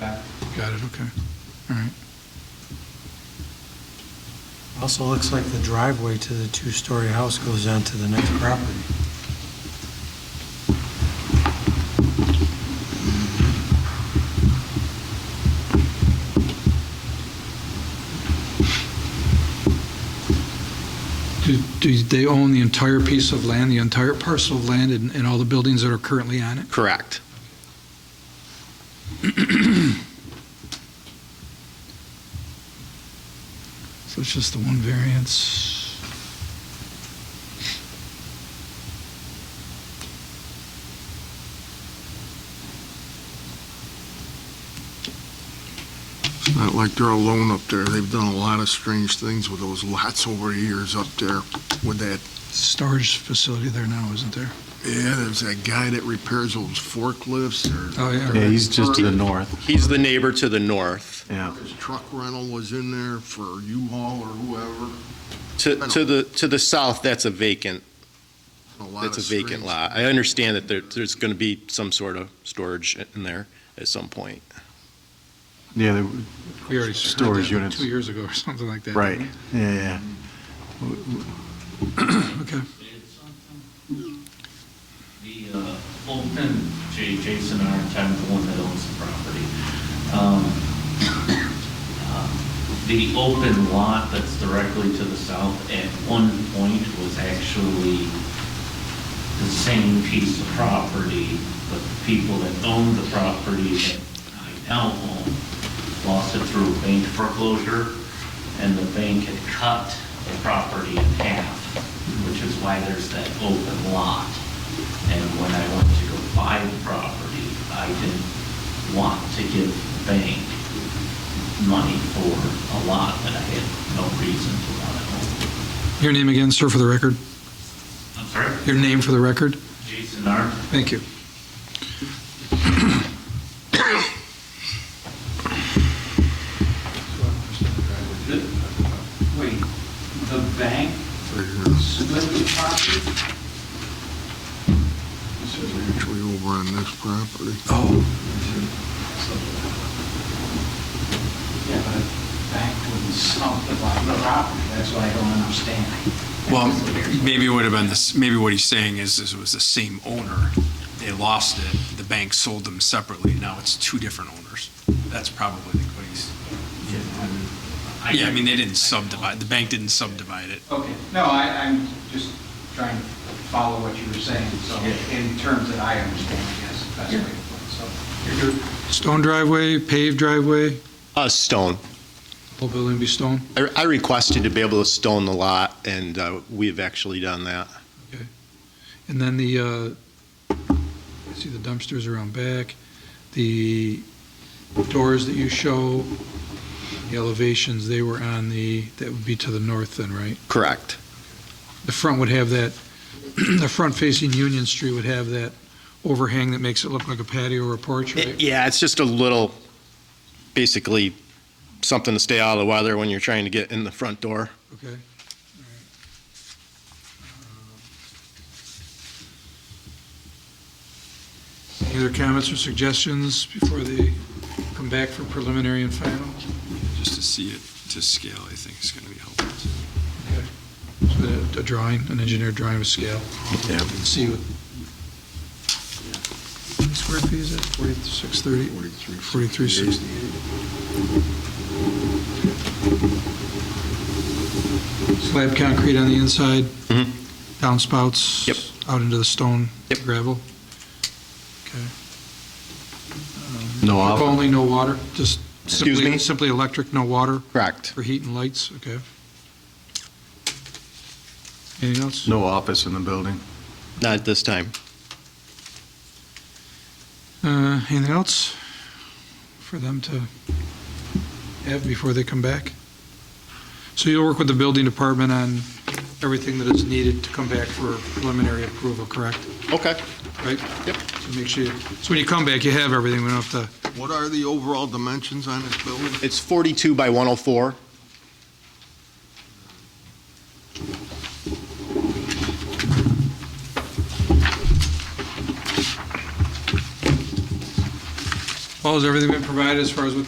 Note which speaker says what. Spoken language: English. Speaker 1: back.
Speaker 2: Got it, okay. All right.
Speaker 3: Also looks like the driveway to the two-story house goes onto the next property.
Speaker 2: Do- Do they own the entire piece of land, the entire parcel of land, and and all the buildings that are currently on it?
Speaker 4: Correct.
Speaker 2: So it's just the one variance?
Speaker 5: It's not like they're alone up there. They've done a lot of strange things with those lots over the years up there with that.
Speaker 2: Storage facility there now, isn't there?
Speaker 5: Yeah, there's that guy that repairs those forklifts or.
Speaker 2: Oh, yeah.
Speaker 6: Yeah, he's just to the north,
Speaker 4: He's the neighbor to the north.
Speaker 6: yeah.
Speaker 5: His truck rental was in there for U-Haul or whoever.
Speaker 4: To, to the, to the south, that's a vacant,
Speaker 5: lot
Speaker 4: that's a
Speaker 5: of
Speaker 4: vacant
Speaker 5: strange-
Speaker 4: lot. I understand that there, there's going to be some sort of storage in there at some point.
Speaker 6: Yeah, there-
Speaker 2: We already heard
Speaker 6: Storage
Speaker 2: that
Speaker 6: units.
Speaker 2: Two years ago or something like that.
Speaker 6: right, yeah, yeah.
Speaker 2: Okay.
Speaker 1: The uh, Oldman, J- Jason Arntime, the one that owns the property. um, uh, The open lot that's directly to the south at one point was actually the same piece of property, but the people that owned the property that I now own lost it through bank foreclosure, and the bank had cut the property in half, which is why there's that open lot. And when I went to go buy the property, I didn't want to give the bank money for a lot that I had no reason to want to own.
Speaker 2: Your name again, sir, for the record?
Speaker 1: I'm sorry?
Speaker 2: Your name for the record?
Speaker 1: Jason Arndt?
Speaker 2: Thank you.
Speaker 1: The- Wait, the bank split the property?
Speaker 5: This is Actually over on this property.
Speaker 2: Oh,
Speaker 7: Yeah, but a bank wouldn't sell the property, that's what I don't understand.
Speaker 8: Well, maybe it would have been this, maybe what he's saying is, is it was the same owner. They lost it, the bank sold them separately, now it's two different owners. That's probably what he's, yeah, I mean, they didn't subdivide, the bank didn't subdivide it.
Speaker 7: Okay, no, I, I'm just trying to follow what you were saying, so in terms that I understand, yes, that's the way to put it, so.
Speaker 2: stone driveway, paved driveway,
Speaker 4: Uh, stone.
Speaker 2: whole building be stone?
Speaker 4: I I requested to be able to stone the lot, and uh, we've actually done that.
Speaker 2: And then the, uh, I see the dumpsters around back, the doors that you show, the elevations, they were on the, that would be to the north then, right?
Speaker 4: Correct.
Speaker 2: The front would have that, the front facing Union Street would have that overhang that makes it look like a patio or a porch, right?
Speaker 4: Yeah, it's just a little, basically, something to stay out of the weather when you're trying to get in the front door.
Speaker 2: Okay. All right. Uh, Any other comments or suggestions before they come back for preliminary and final?
Speaker 8: Just to see it to scale, I think is going to be helpful.
Speaker 2: A a drawing, an engineered drawing with scale.
Speaker 6: Yeah.
Speaker 2: See what. Square feet is it, 4630? 4360. Slab concrete on the inside?
Speaker 4: Mhm.
Speaker 2: Downspouts?
Speaker 4: Yep.
Speaker 2: Out into the stone?
Speaker 4: Yep.
Speaker 2: Gravel?
Speaker 6: No
Speaker 2: If
Speaker 6: off,
Speaker 2: only no water, just
Speaker 4: Excuse
Speaker 2: simply,
Speaker 4: me?
Speaker 2: simply electric, no water
Speaker 4: Correct.
Speaker 2: for heat and lights, okay? Anything else?
Speaker 6: no office in the building.
Speaker 4: Not at this time.
Speaker 2: Uh, Anything else for them to have before they come back? So you'll work with the building department on everything that is needed to come back for preliminary approval, correct?
Speaker 4: Okay.
Speaker 2: Right?
Speaker 4: Yep.
Speaker 2: So make sure, you- so when you come back, you have everything, we don't have to,
Speaker 5: What are the overall dimensions on this building?
Speaker 4: It's 42 by 104.
Speaker 2: Well, has everything been provided as far as what